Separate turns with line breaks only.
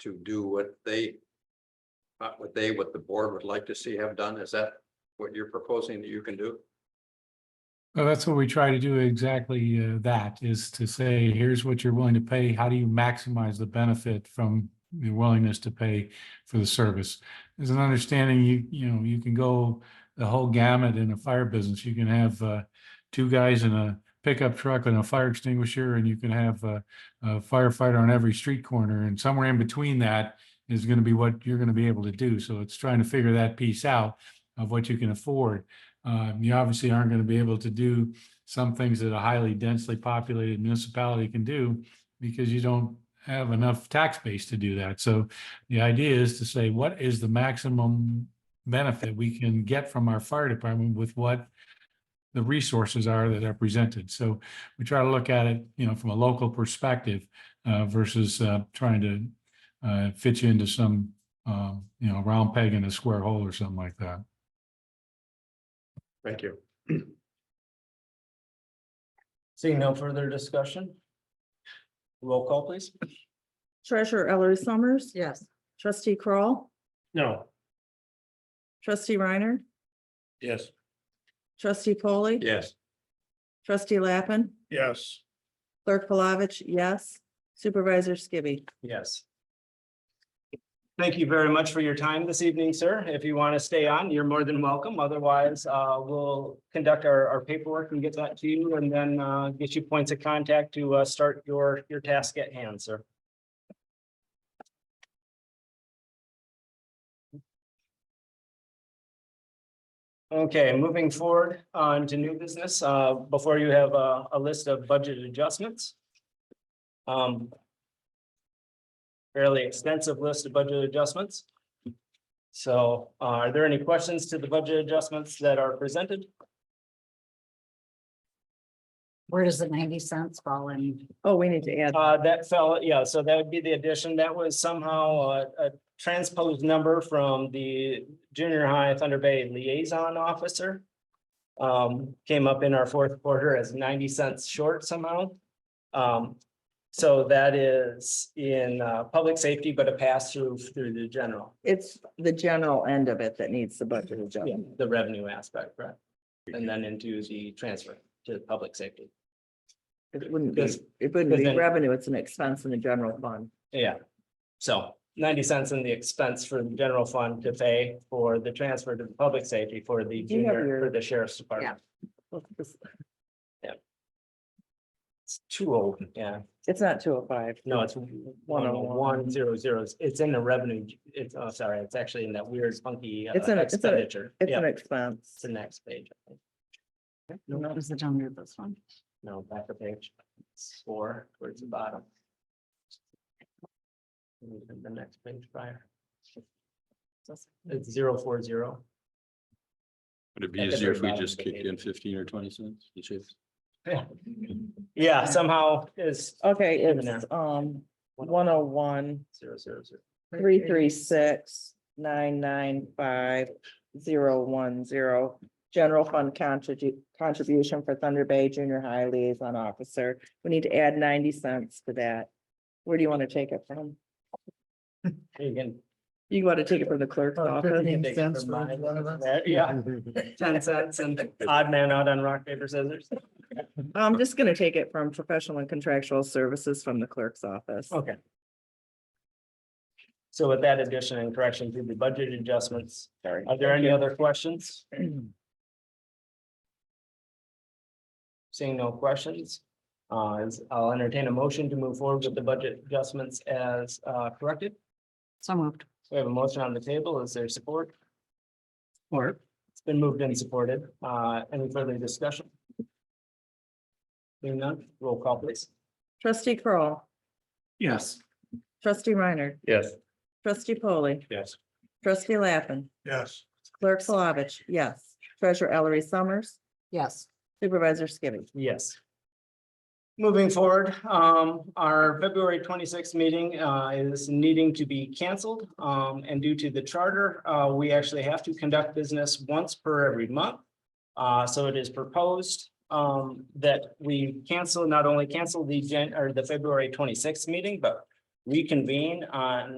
to do what they. Uh, what they, what the board would like to see have done, is that what you're proposing that you can do?
Well, that's what we try to do exactly uh, that is to say, here's what you're willing to pay. How do you maximize the benefit from the willingness to pay for the service? There's an understanding you, you know, you can go the whole gamut in a fire business. You can have uh, two guys in a pickup truck and a fire extinguisher, and you can have uh, a firefighter on every street corner. And somewhere in between that is going to be what you're going to be able to do. So it's trying to figure that piece out of what you can afford. Um, you obviously aren't going to be able to do some things that a highly densely populated municipality can do because you don't have enough tax base to do that. So the idea is to say, what is the maximum benefit we can get from our fire department with what the resources are that are presented? So we try to look at it, you know, from a local perspective uh, versus uh, trying to uh, fit you into some, um, you know, round peg in a square hole or something like that.
Thank you.
Seeing no further discussion. Roll call, please.
Treasurer Ellery Summers.
Yes.
Trustee Crawl,
No.
trustee Reiner,
Yes.
trustee Polly.
Yes,
Trustee Lappin,
Yes.
clerk Palovich, yes. Supervisor Skibby.
Yes. Thank you very much for your time this evening, sir. If you want to stay on, you're more than welcome. Otherwise, uh, we'll conduct our, our paperwork and get that to you and then, uh, get you points of contact to, uh, start your, your task at hand, sir. Okay, moving forward on to new business, uh, before you have a, a list of budget adjustments. Um, fairly extensive list of budget adjustments. So uh, are there any questions to the budget adjustments that are presented?
Where does the ninety cents fall in?
Oh, we need to add.
Uh, that fell, yeah, so that would be the addition. That was somehow uh, a transposed number from the junior high Thunder Bay liaison officer. Um, came up in our fourth quarter as ninety cents short somehow. Um, so that is in uh, public safety, but a pass through through the general.
It's the general end of it that needs the budget
Yeah,
adjustment.
the revenue aspect, right? And then into the transfer to public safety.
It wouldn't be,
Yes.
it wouldn't
Because
be
then-
revenue, it's an expense in the general fund.
Yeah. So ninety cents in the expense for the general fund to pay for the transfer to the public safety for the
Do you have
junior,
your-
for the sheriff's department. It's too old, yeah.
It's not two oh five.
No, it's one oh one zero zero. It's in the revenue. It's, oh, sorry, it's actually in that weird funky uh,
It's in a- it's in a-
expenditure.
It's
Yeah,
an
it's
expense.
the next page. I think.
What is it under this one?
No, back a page. It's Four towards the bottom. And then The next page prior. It's zero four zero.
Would it be
At the
easier
very
if we
bottom
just
of the
kicked in
page.
fifteen or twenty cents? each if-
Yeah. Yeah, somehow is oh,
Okay,
Even
it's um one oh one,
zero zero zero.
three, three, six, nine, nine, five, zero, one, zero. General fund contribu- contribution for Thunder Bay Junior High Liaison Officer. We need to add ninety cents to that. Where do you want to take it from?
You can.
You want to take it from the clerk's office?
take it from mine. There, Yeah, ten cents and odd man out on rock, paper, scissors.
I'm just gonna take it from professional and contractual services from the clerk's office.
Okay. So with that addition and correction to the budget adjustments,
Sorry.
are there any other questions? Seeing no questions, uh, is- I'll entertain a motion to move forward with the budget adjustments as uh, corrected.
So moved.
We have a motion on the table. Is there support? Or it's been moved and supported. Uh, any further discussion? Seeing none, roll call please.
Trustee Kroll,
Yes.
trustee Reiner,
Yes.
trustee Polly.
Yes.
Trustee Lappin.
Yes.
Clerk Palovich, yes. Treasurer Ellery Summers.
Yes.
Supervisor Skibby.
Yes. Moving forward, um, our February twenty-sixth meeting, uh, is needing to be canceled. Um, and due to the charter, uh, we actually have to conduct business once per every month. Uh, so it is proposed, um, that we cancel, not only cancel the Jan, or the February twenty-sixth meeting, but reconvene on